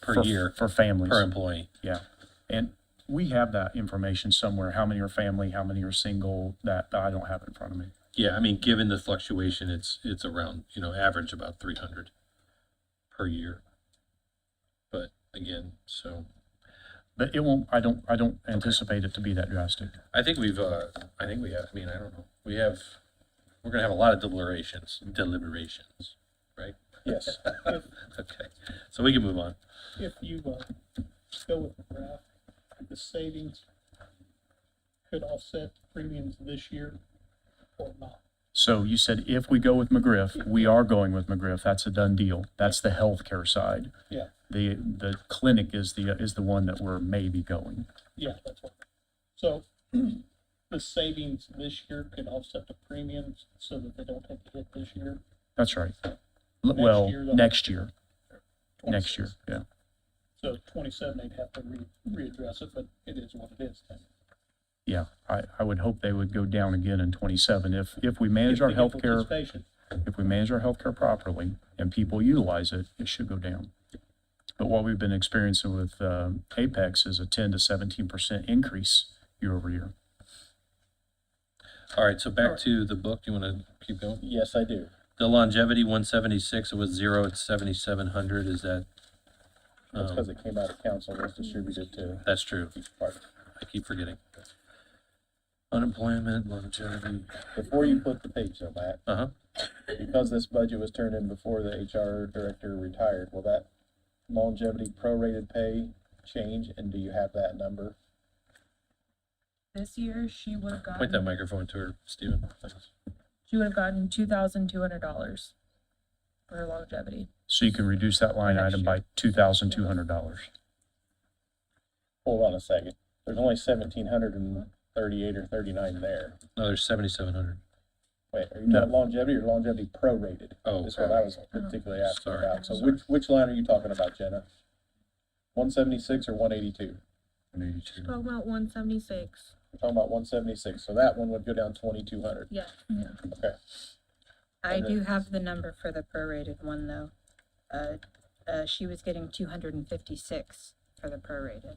per for- year, For families. per employee. Yeah, and we have that information somewhere, how many are family, how many are single, that I don't have in front of me. Yeah, I mean, given the fluctuation, it's, it's around, you know, average about three hundred per year. But again, so But it won't, I don't, I don't anticipate it to be that drastic. I think we've, uh, I think we have, I mean, I don't know, we have, we're gonna have a lot of deliberations, deliberations, right? Yes, if, Okay, so we can move on. if you, uh, go with the graph, the savings could offset premiums this year or not. So you said if we go with McGriff, we are going with McGriff, that's a done deal, that's the healthcare side. Yeah. The, the clinic is the, is the one that we're maybe going. Yeah, that's what. So the savings this year could offset the premiums so that they don't take a hit this year. That's right. L- Well, year, though. next year, next 26. year, yeah. So twenty-seven, they'd have to re, readdress it, but it is what it is. Yeah, I, I would hope they would go down again in twenty-seven if, if we manage our If they get healthcare participation, if we manage our healthcare properly and people utilize it, it should go down. But what we've been experiencing with um, Apex is a 10 to 17% increase year over year. All right, so back to the book, do you wanna keep going? Yes, I do. The longevity one seventy-six, it was zero, it's seventy-seven hundred, is that? That's um, because it came out of council, and was distributed to That's true, each part. I keep forgetting. Unemployment, longevity, Before you flip the page though, Matt, uh-huh, because this budget was turned in before the HR director retired, will that longevity prorated pay change, and do you have that number? This year, she would have point that gotten, microphone to her, Stephen. she would have gotten two thousand two hundred dollars for her longevity. So you can reduce that line Next item by $2,200. Hold on a second, there's only seventeen hundred and thirty-eight or thirty-nine there. No, there's seventy-seven hundred. Wait, are you No. talking longevity or longevity prorated? Oh, Is what I was Um, particularly asking Sorry, about, so sorry. which, which line are you talking about, Jenna? One seventy-six or one eighty-two? Twelve about one seventy-six. We're talking about one seventy-six, so that one would go down twenty-two hundred, Yeah. okay. I Okay. do have the number for the prorated one though. Uh, uh, she was getting two hundred and fifty-six for the prorated.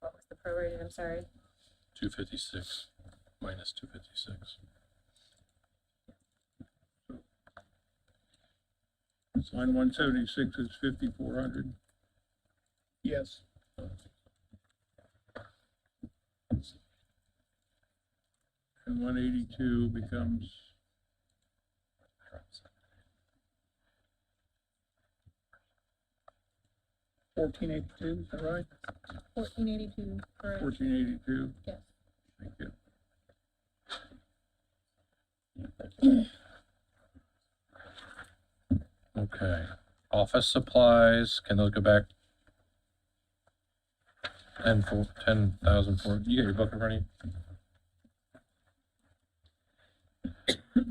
What was the prorated? I'm sorry. Two fifty-six, minus two fifty-six. Line one seventy-six is fifty-four hundred. yes. And one eighty-two becomes Fourteen eighty-two, is that right? Fourteen eighty-two, correct? fourteen eighty-two. Yes. Thank you. Okay, office supplies, can those go back? Ten four, ten thousand four, you got your book in front of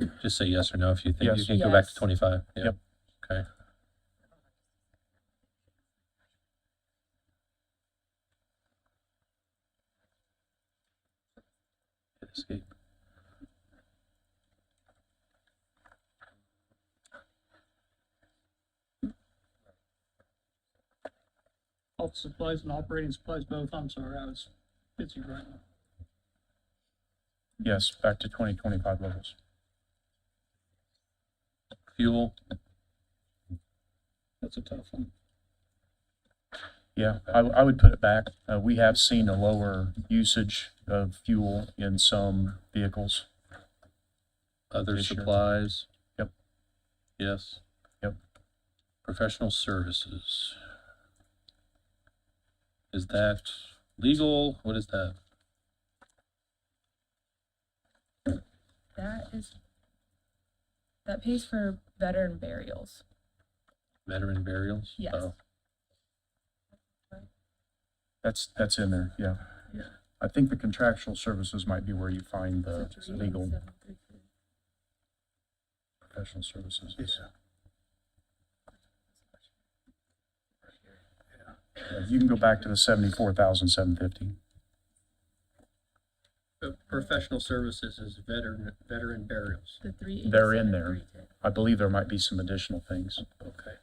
you? Just say yes or no if you think you Yes. can go back to Yes. twenty-five, yeah, Yep. okay. Escape. Office supplies and operating supplies both, I'm sorry, I was busy right now. Yes, back to 2025 levels. Fuel, That's a tough one. Yeah, I, I would put it back. Uh, we have seen a lower usage of fuel in some vehicles. other Yes, sure. supplies. Yep. Yes. Yep. Professional services. Is that legal? What is that? That is, that pays for veteran burials. Veteran burials? Yes. Oh, That's, that's in there, yeah. Yeah. I think the contractual services might be where you find Uh, the legal professional services. Uh, You can go back to the seventy-four thousand seven fifty. professional services is veteran, veteran burials. The three. They're in there. I believe there might be some additional things. Okay.